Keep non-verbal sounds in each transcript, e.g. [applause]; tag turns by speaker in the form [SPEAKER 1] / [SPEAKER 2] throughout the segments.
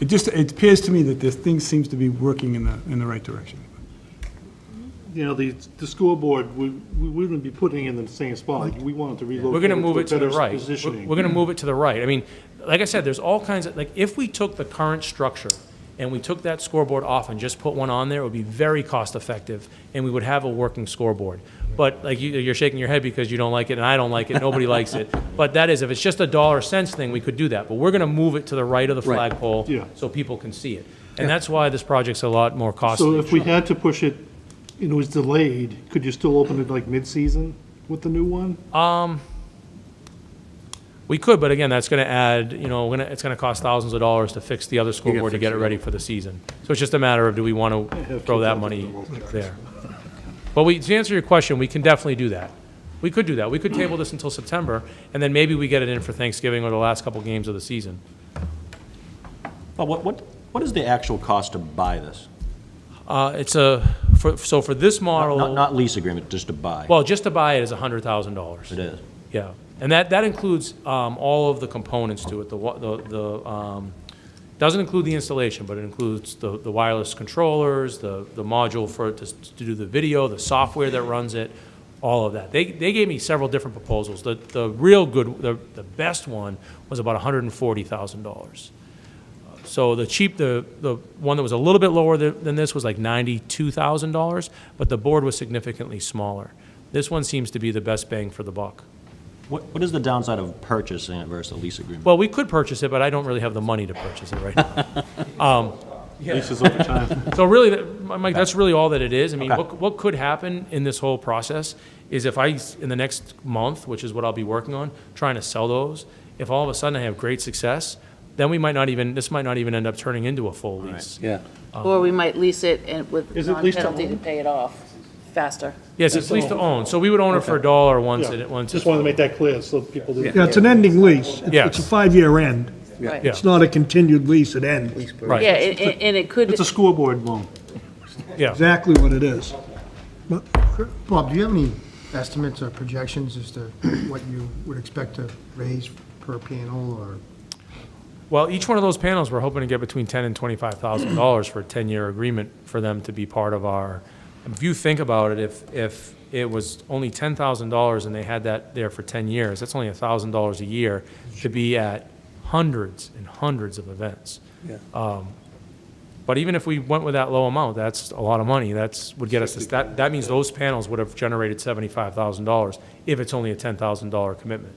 [SPEAKER 1] It just, it appears to me that this thing seems to be working in the, in the right direction.
[SPEAKER 2] you know, the, the school board, we, we wouldn't be putting it in the same spot. We wanted to relocate.
[SPEAKER 3] We're gonna move
[SPEAKER 2] a
[SPEAKER 3] it to the
[SPEAKER 2] better
[SPEAKER 3] right. We're-
[SPEAKER 2] Positioning.
[SPEAKER 3] We're gonna move it to the right. I mean, like I said, there's all kinds of, like, if we took the current structure and we took that scoreboard off and just put one on there, it would be very cost-effective, and we would have a working scoreboard. But, like, you, you're shaking your head because you don't like it, and I don't like it, nobody likes
[SPEAKER 2] [laughs]
[SPEAKER 3] it. But that is, if it's just a dollar cents thing, we could do that. But we're gonna move it to the right of the
[SPEAKER 4] Right.
[SPEAKER 3] flagpole,
[SPEAKER 2] Yeah.
[SPEAKER 3] so people can see it. And that's why this project's a lot more costly.
[SPEAKER 2] So if we had to push it, and it was delayed, could you still open it like mid-season with the new one?
[SPEAKER 3] We could, but again, that's going to add, you know, we're gonna- it's going to cost thousands of dollars to fix the other
[SPEAKER 4] gotta
[SPEAKER 3] scoreboard to
[SPEAKER 4] fix
[SPEAKER 3] get it
[SPEAKER 4] the
[SPEAKER 3] ready for the season. So it's just a matter of, do we want to
[SPEAKER 2] have
[SPEAKER 3] throw
[SPEAKER 2] two
[SPEAKER 3] that
[SPEAKER 2] thousand
[SPEAKER 3] money
[SPEAKER 2] dollars.
[SPEAKER 3] there? But we, to answer your question, we can definitely do that. We could do that. We could table this until September, and then maybe we get it in for Thanksgiving or the last couple games of the season.
[SPEAKER 4] Well, what, what, what is the actual cost to buy this?
[SPEAKER 3] Uh, It's a, for- so for this
[SPEAKER 4] Not,
[SPEAKER 3] model,
[SPEAKER 4] not lease agreement, just to buy.
[SPEAKER 3] well, just to buy it is $100,000.
[SPEAKER 4] It is.
[SPEAKER 3] Yeah, and that, that includes um, all of the components to it, the, wa- the- the, um, doesn't include the installation, but it includes the, the wireless controllers, the, the module for, it to s- to do the video, the software that runs it, all of that. They, they gave me several different proposals. The, the real good, the, the best one was about hundred and forty thousand dollars. So the cheap, the, the one that was a little bit lower than, than this was like ninety-two thousand dollars, but the board was significantly smaller. This one seems to be the best bang for the buck.
[SPEAKER 4] What, what is the downside of purchasing it versus a lease agreement?
[SPEAKER 3] Well, we could purchase it, but I don't really have the money to purchase it right now. Um,
[SPEAKER 2] Leases over time.
[SPEAKER 3] [laughs] So really, that- Mike, that's really all that it is. I mean,
[SPEAKER 4] Okay.
[SPEAKER 3] what, what could happen in this whole process is if I, s- in the next month, which is what I'll be working on, trying to sell those, if all of a sudden I have great success, then we might not even, this might not even end up turning into a full lease.
[SPEAKER 4] Yeah.
[SPEAKER 5] Or we might lease it and with
[SPEAKER 2] Is it leased to
[SPEAKER 5] non-penalty to
[SPEAKER 2] own?
[SPEAKER 5] pay it off faster.
[SPEAKER 3] Yes, it's lease to own, so we would own it for a dollar once
[SPEAKER 2] Yeah.
[SPEAKER 3] it, once
[SPEAKER 2] Just
[SPEAKER 3] it's.
[SPEAKER 2] wanted to make that clear, so people didn't.
[SPEAKER 6] Yeah, it's an ending lease. It's- It's a
[SPEAKER 3] Yes.
[SPEAKER 6] five-year end.
[SPEAKER 5] Right.
[SPEAKER 3] Yeah.
[SPEAKER 6] It's not a continued lease, it ends.
[SPEAKER 3] Right.
[SPEAKER 5] Yeah, and, and- and it could,
[SPEAKER 2] It's a school board loan.
[SPEAKER 3] Yeah,
[SPEAKER 6] Exactly what it is.
[SPEAKER 7] Bob, do you have any estimates or projections as to [clears throat] what you would expect to raise per panel or?
[SPEAKER 3] well, each one of those panels, we're hoping to get between ten and twenty-five thousand dollars for a ten-year agreement for them to be part of our, if you think about it, if, if it was only ten thousand dollars and they had that there for ten years, that's only a thousand dollars a year to be at hundreds and hundreds of events. Um, But even if we went with that low amount, that's a lot of money, that's, would get us, to- that, that means those panels would have generated seventy-five thousand dollars if it's only a ten thousand dollar commitment.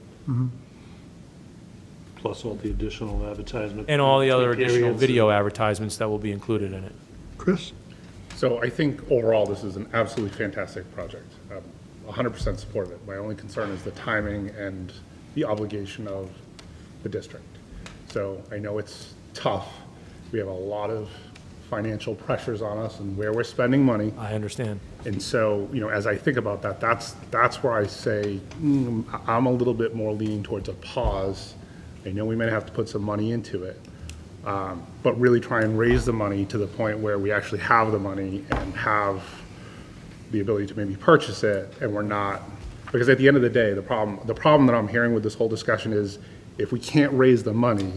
[SPEAKER 2] Plus all the additional advertisement.
[SPEAKER 3] And all the other additional
[SPEAKER 2] periods.
[SPEAKER 3] video advertisements that will be included in it.
[SPEAKER 6] Chris?
[SPEAKER 8] So I think overall, this is an absolutely fantastic project. Um, 100% support of it. My only concern is the timing and the obligation of the district. So I know it's tough. We have a lot of financial pressures on us and where we're spending money.
[SPEAKER 3] I understand.
[SPEAKER 8] And so, you know, as I think about that, that's, that's where I say, mm, I- I'm a little bit more leaning towards a pause. I know we may have to put some money into it, um, but really try and raise the money to the point where we actually have the money and have the ability to maybe purchase it, and we're not, because at the end of the day, the problem, the problem that I'm hearing with this whole discussion is, if we can't raise the money,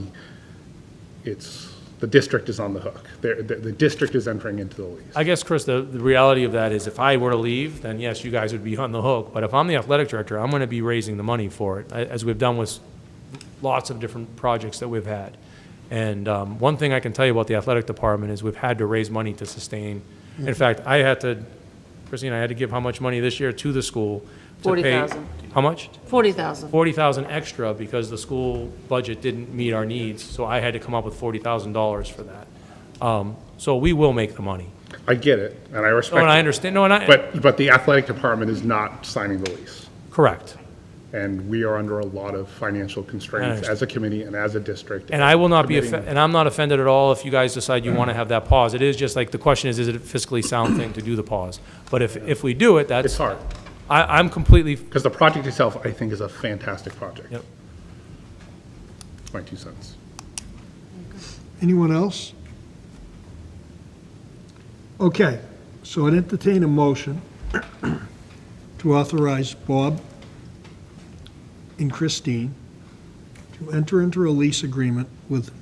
[SPEAKER 8] it's, the district is on the hook. They're- The, the district is entering into the lease.
[SPEAKER 3] I guess, Chris, the, the reality of that is if I were to leave, then yes, you guys would be on the hook. But if I'm the athletic director, I'm going to be raising the money for it, a- as we've done with lots of different projects that we've had. And um, one thing I can tell you about the athletic department is we've had to raise money to sustain. In fact, I had to, Christine, I had to give how much money this year to the school to pay.
[SPEAKER 5] $40,000.
[SPEAKER 3] How much?
[SPEAKER 5] forty thousand.
[SPEAKER 3] forty thousand extra because the school budget didn't meet our needs, so I had to come up with forty thousand dollars for that. Um, so we will make the money.
[SPEAKER 8] I get it, Oh, and I
[SPEAKER 3] No,
[SPEAKER 8] respect
[SPEAKER 3] and I
[SPEAKER 8] it.
[SPEAKER 3] understand, no, and I,
[SPEAKER 8] But, but the athletic department is not signing the lease,
[SPEAKER 3] correct.
[SPEAKER 8] and we are under a lot of financial constraints
[SPEAKER 3] understand.
[SPEAKER 8] as a committee and as a district.
[SPEAKER 3] And I will not be, offe-
[SPEAKER 8] Committing-
[SPEAKER 3] and I'm not offended at all if you guys decide you want to have that pause. It is just like, the question is, is it a fiscally sound thing to do the pause? But if, if we do it, that's.
[SPEAKER 8] It's hard,
[SPEAKER 3] I, I'm completely,
[SPEAKER 8] because the project itself, I think, is a fantastic project.
[SPEAKER 3] Yep.
[SPEAKER 8] My two cents.
[SPEAKER 6] Anyone else? Okay, so I'd entertain a motion [clears throat] to authorize Bob and Christine to enter into a lease agreement with